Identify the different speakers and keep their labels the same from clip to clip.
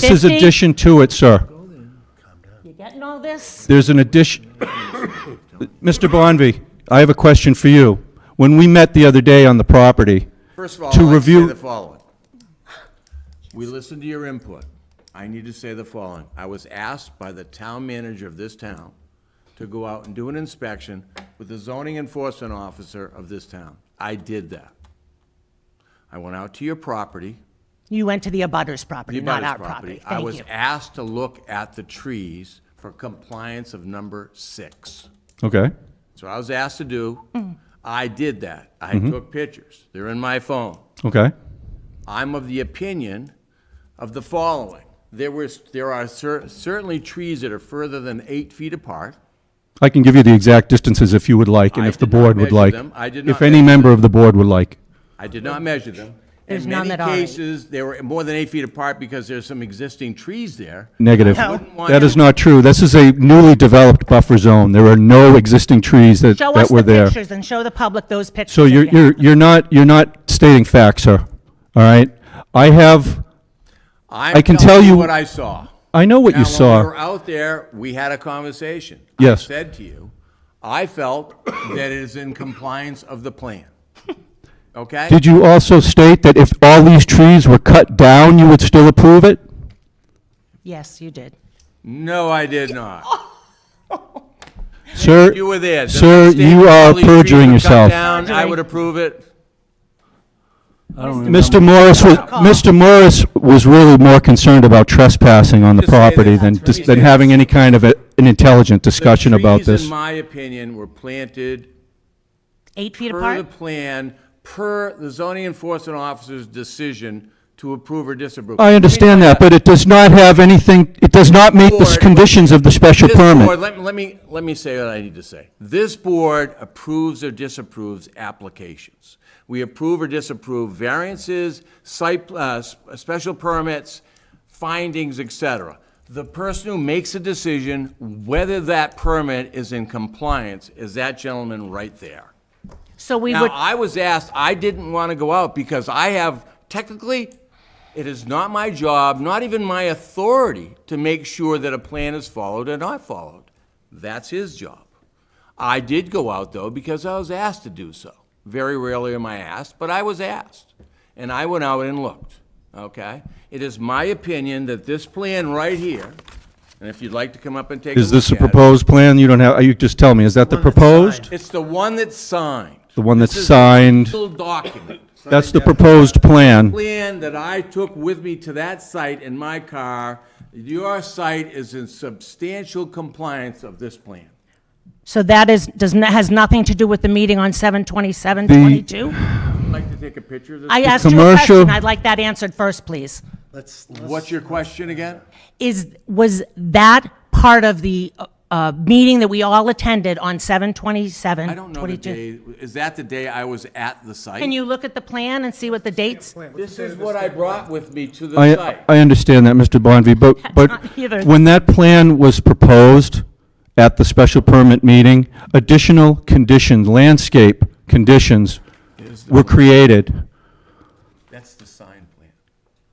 Speaker 1: This is
Speaker 2: 50?
Speaker 1: addition to it, sir.
Speaker 2: You getting all this?
Speaker 1: There's an addition, Mr. Bonvy, I have a question for you. When we met the other day on the property,
Speaker 3: First of all,
Speaker 1: To
Speaker 3: I'd like to
Speaker 1: review-
Speaker 3: say the following. We listened to your input. I need to say the following. I was asked by the town manager of this town to go out and do an inspection with the zoning enforcement officer of this town. I did that. I went out to your property.
Speaker 2: You went to the abutters property,
Speaker 3: the
Speaker 2: not our
Speaker 3: abutters
Speaker 2: property.
Speaker 3: I
Speaker 2: Thank
Speaker 3: was
Speaker 2: you.
Speaker 3: asked to look at the trees for compliance of number six.
Speaker 1: okay?
Speaker 3: So I was asked to do.
Speaker 2: Mm.
Speaker 3: I did that. I
Speaker 1: Mm-hmm.
Speaker 3: took pictures. They're in my phone.
Speaker 1: Okay,
Speaker 3: I'm of the opinion of the following. There was, there are cer- certainly trees that are further than eight feet apart.
Speaker 1: I can give you the exact distances if you would like, and
Speaker 3: I
Speaker 1: if the
Speaker 3: did not
Speaker 1: board would
Speaker 3: measure
Speaker 1: like.
Speaker 3: them. I did
Speaker 1: If
Speaker 3: not
Speaker 1: any
Speaker 3: measure
Speaker 1: member of the board would like.
Speaker 3: I did not measure them.
Speaker 2: There's none that are
Speaker 3: In
Speaker 2: eight.
Speaker 3: many cases, they were more than eight feet apart because there's some existing trees there.
Speaker 1: Negative.
Speaker 3: I wouldn't want
Speaker 1: That
Speaker 3: you-
Speaker 1: is not true. This is a newly developed buffer zone. There are no existing trees that,
Speaker 2: Show
Speaker 1: that
Speaker 2: us
Speaker 1: were
Speaker 2: the
Speaker 1: there.
Speaker 2: pictures and show the public those pictures.
Speaker 1: So you're,
Speaker 2: if you have
Speaker 1: you're, you're not, you're not stating facts, sir, all right? I have, I
Speaker 3: I'm
Speaker 1: can tell
Speaker 3: telling you
Speaker 1: you-
Speaker 3: what I saw.
Speaker 1: I know what you
Speaker 3: Now, when we
Speaker 1: saw.
Speaker 3: were out there, we had a conversation.
Speaker 1: Yes.
Speaker 3: I said to you, I felt that it is in compliance of the plan. Okay?
Speaker 1: Did you also state that if all these trees were cut down, you would still approve it?
Speaker 2: Yes, you did.
Speaker 3: No, I did not.
Speaker 1: Sir,
Speaker 3: You were there. The
Speaker 1: sir,
Speaker 3: state
Speaker 1: you are
Speaker 3: probably treated
Speaker 1: perjuring
Speaker 3: the cut
Speaker 1: yourself.
Speaker 3: down. I would approve it.
Speaker 1: Mr. Morris was, Mr. Morris was really more concerned about trespassing on the
Speaker 3: Just say that
Speaker 1: property than,
Speaker 3: that's
Speaker 1: dis-
Speaker 3: what
Speaker 1: than
Speaker 3: he
Speaker 1: having any kind of a- an intelligent discussion about
Speaker 3: Trees, in
Speaker 1: this.
Speaker 3: my opinion, were planted
Speaker 2: Eight feet
Speaker 3: per the
Speaker 2: apart?
Speaker 3: plan, per the zoning enforcement officer's decision to approve or disapprove.
Speaker 1: I understand that, but it does not have anything, it does not meet the s-
Speaker 3: Board-
Speaker 1: conditions of the special
Speaker 3: This board,
Speaker 1: permit.
Speaker 3: let me, let me, let me say what I need to say. This board approves or disapproves applications. We approve or disapprove variances, site, uh, s- special permits, findings, et cetera. The person who makes a decision whether that permit is in compliance is that gentleman right there.
Speaker 2: So we
Speaker 3: Now,
Speaker 2: would,
Speaker 3: I was asked, I didn't want to go out because I have, technically, it is not my job, not even my authority, to make sure that a plan is followed or not followed. That's his job. I did go out, though, because I was asked to do so. Very rarely am I asked, but I was asked. And I went out and looked, okay? It is my opinion that this plan right here, and if you'd like to come up and take a look at it.
Speaker 1: Is this a proposed plan? You don't have, you just tell me, is that the proposed?
Speaker 3: It's the one that's signed.
Speaker 1: The one that's
Speaker 3: This is a
Speaker 1: signed.
Speaker 3: Little document.
Speaker 1: That's the proposed plan.
Speaker 3: plan that I took with me to that site in my car, your site is in substantial compliance of this plan.
Speaker 2: so that is, does, n- has nothing to do with the meeting on seven twenty-seven
Speaker 1: The-
Speaker 2: twenty-two?
Speaker 3: I'd like to take a picture of this.
Speaker 2: I asked you a question.
Speaker 1: commercial-
Speaker 2: I'd like that answered first, please.
Speaker 4: Let's,
Speaker 3: What's your question again?
Speaker 2: Is, was that part of the, uh, uh, meeting that we all attended on seven twenty-seven
Speaker 3: I don't know the
Speaker 2: twenty-two?
Speaker 3: day, is that the day I was at the site?
Speaker 2: Can you look at the plan and see what the dates?
Speaker 3: This is what I brought with me to the
Speaker 1: I,
Speaker 3: site.
Speaker 1: I understand that, Mr. Bonvy, but,
Speaker 2: not
Speaker 1: but
Speaker 2: either.
Speaker 1: when that plan was proposed at the special permit meeting, additional conditions, landscape conditions were created.
Speaker 3: That's the sign plan.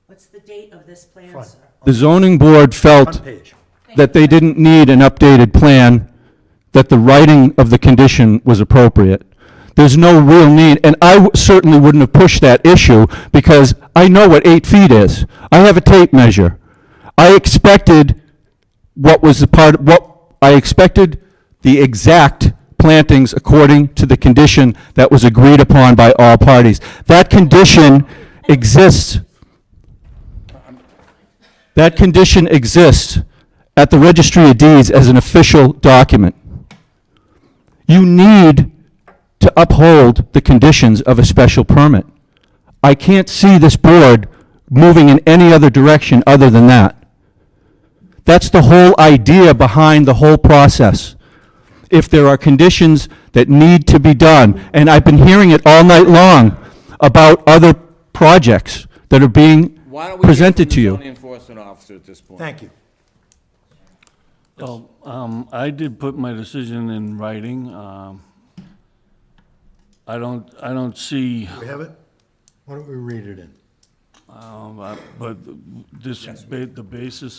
Speaker 2: What's the date of this plan, sir?
Speaker 1: The zoning board
Speaker 4: front
Speaker 1: felt
Speaker 4: page.
Speaker 1: that they didn't need an updated plan, that the writing of the condition was appropriate. There's no real need, and I w- certainly wouldn't have pushed that issue, because I know what eight feet is. I have a tape measure. I expected what was the part, what, I expected the exact plantings according to the condition that was agreed upon by all parties. That condition exists. That condition exists at the Registry of Deeds as an official document. You need to uphold the conditions of a special permit. I can't see this board moving in any other direction other than that. That's the whole idea behind the whole process. If there are conditions that need to be done, and I've been hearing it all night long about other projects that are being
Speaker 3: Why don't we hear
Speaker 1: presented to
Speaker 3: from the
Speaker 1: you.
Speaker 3: zoning enforcement officer at this point?
Speaker 4: Thank you.
Speaker 5: Well, um, I did put my decision in writing. Um, I don't, I don't see,
Speaker 4: We have it? Why don't we read it in?
Speaker 5: um, but this, uh, ba- the basis